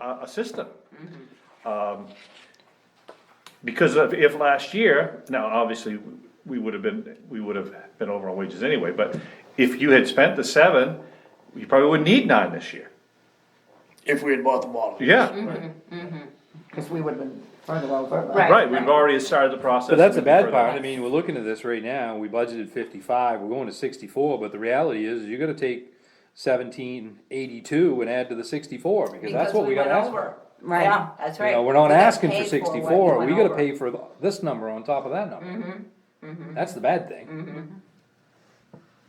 a, a system. Um, Because of, if last year, now, obviously, we would have been, we would have been over on wages anyway, but if you had spent the seven, you probably wouldn't need nine this year, If we had bought the bottle. yeah, Cause we would've been further over. but- Right. right, we've already started the process. But that's the of bad further- part, I mean, we're looking at this right now, we budgeted fifty-five, we're going to sixty-four, but the reality is, you're gonna take seventeen eighty-two and add to the sixty-four, because that's what we gotta ask for. Right. Yeah, that's You right. know, we're We not got asking for paid what sixty-four, we went gotta over. pay for this number on top of that number. That's the bad thing,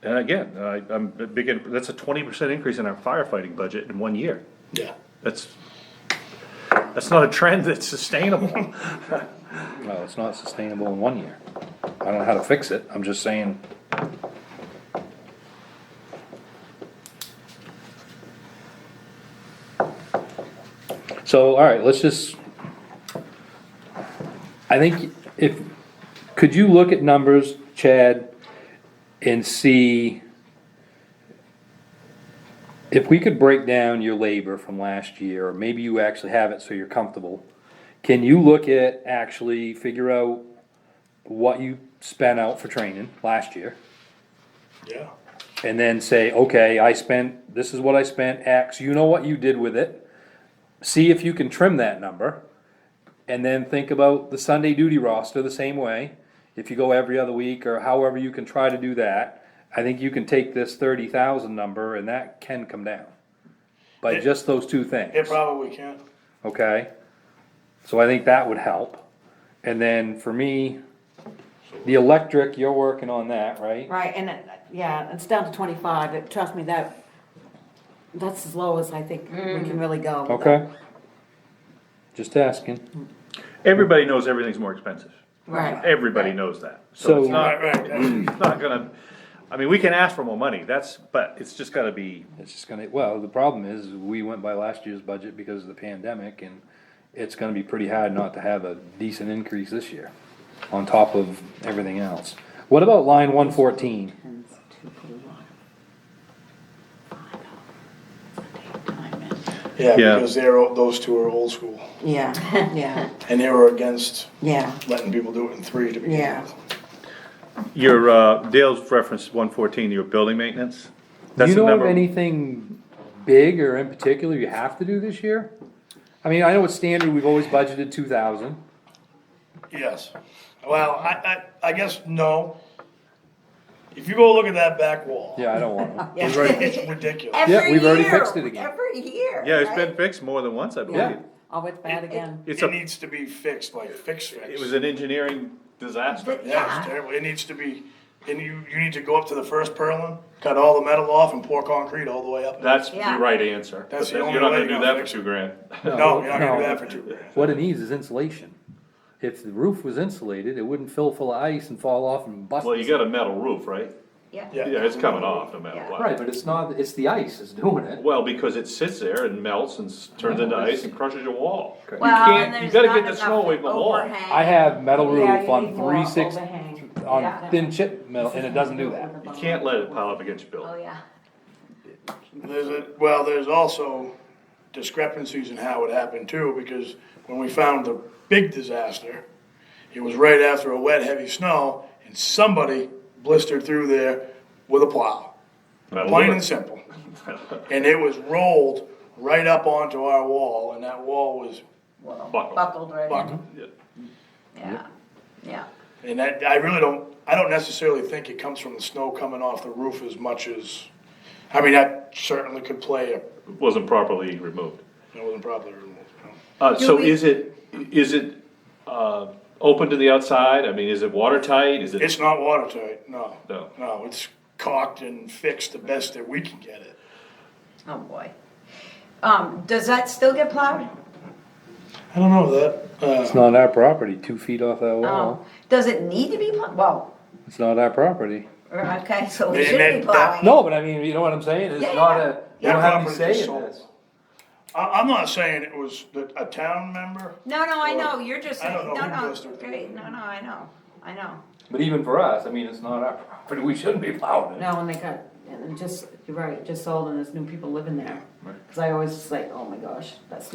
And again, I, I'm a big, in- that's a twenty percent increase in our firefighting budget in one year, Yeah. that's, that's not a trend that's sustainable. no, it's not sustainable in one year. I don't know how to fix it, I'm just saying, So, alright, let's just. I think if, could you look at numbers, Chad, and see? If we could break down your labor from last year, or maybe you actually have it so you're comfortable. Can you look at, actually figure out what you spent out for training last year? Yeah. and then say, okay, I spent, this is what I spent, X, you know what you did with it. See if you can trim that number, and then think about the Sunday duty roster the same way. If you go every other week, or however you can try to do that, I think you can take this thirty thousand number and that can come down. By just those two things It probably can. okay? So I think that would help. And then for me, the electric, you're working on that, right? Right, and it, yeah, it's down to twenty-five, it, trust me, that, that's as low as I think we can really go. Okay? Just asking. Everybody knows everything's more expensive, Right, everybody knows that, so it's So- not, Right, right, right. It's not gonna, I mean, we can ask for more money, that's, but it's just gotta be, It's just gonna, well, the problem is, we went by last year's budget because of the pandemic and it's gonna be pretty hard not to have a decent increase this year on top of everything else. What about line one fourteen? Yeah, Yeah. because they're, o- those two are old school, yeah, yeah, and they were against yeah, letting people do it in three to begin Yeah. with. your, uh, Dale's reference one fourteen, your building maintenance. Do That's you the know of number- anything big or in particular you have to do this year? I mean, I know it's standard, we've always budgeted two thousand. Yes. Well, I, I, I guess no. If you go look at that back wall, Yeah, I don't want to. it's, right- it's ridiculous. Every we've already year, fixed it again. Every year. Yeah, it's right? been fixed more than once, I Yeah. believe. oh, it's bad again, It's It a, needs to be fixed, like fix fix. it was an engineering disaster. But- Yeah, it's Yeah, terrible. It needs to be, and you, you need to go up to the first purlin, cut all the metal off and pour concrete all the way up. That's the Yeah. right answer. That's the You're only not way gonna you do know. that for two grand. No, you're not gonna do that for two grand. What it needs is insulation. If the roof was insulated, it wouldn't fill full of ice and fall off and bust. Well, you got a metal roof, right? yeah. Yeah. Yeah, it's coming off no matter what. Right, but it's not, it's the ice is doing it. Well, because it sits there and melts and s- turns into ice and crushes your wall. You Well, and can't, you there's gotta not get the enough snow away from the wall. overhang. I have metal Yeah, roof you on need more three six, overhang. on Yeah. thin chip metal, and it doesn't do that. You can't let it pile up against your Oh, building. yeah. There's a, well, there's also discrepancies in how it happened too, because when we found the big disaster, it was right after a wet, heavy snow, and somebody blistered through there with a plow, Metal plain roof. and simple. And it was rolled right up onto our wall, and that wall was Well, Buckle. Buckled right in. buckled. Yeah. Yeah, yeah. And that, I really don't, I don't necessarily think it comes from the snow coming off the roof as much as, I mean, that certainly could play, a- It Wasn't properly removed. it wasn't probably removed. no. Uh, Do so we- is it, is it, uh, open to the outside? I mean, is it watertight? Is it? It's not watertight, no. No. No, it's caulked and fixed the best that we can get it. Oh, boy. Um, does that still get plowed? I don't know that, It's uh, not our property, two feet off that Oh, wall, does it need to be plowed? Well, uh, it's not our property. okay, so we And should be that- that- plowing. No, but I mean, you know what I'm saying, it's Yeah, not yeah. a, you That don't have any property say is in sold. this. I, I'm not saying it was the- a town member. No, no, I know, Well, you're just I don't saying, know no, who no, does it. great, no, no, I know, I know. But even for us, I mean, it's not our property, we shouldn't be plowing it. no, and they got, and just, you're right, just sold and there's new people living there. Cause I always just like, oh my gosh, that's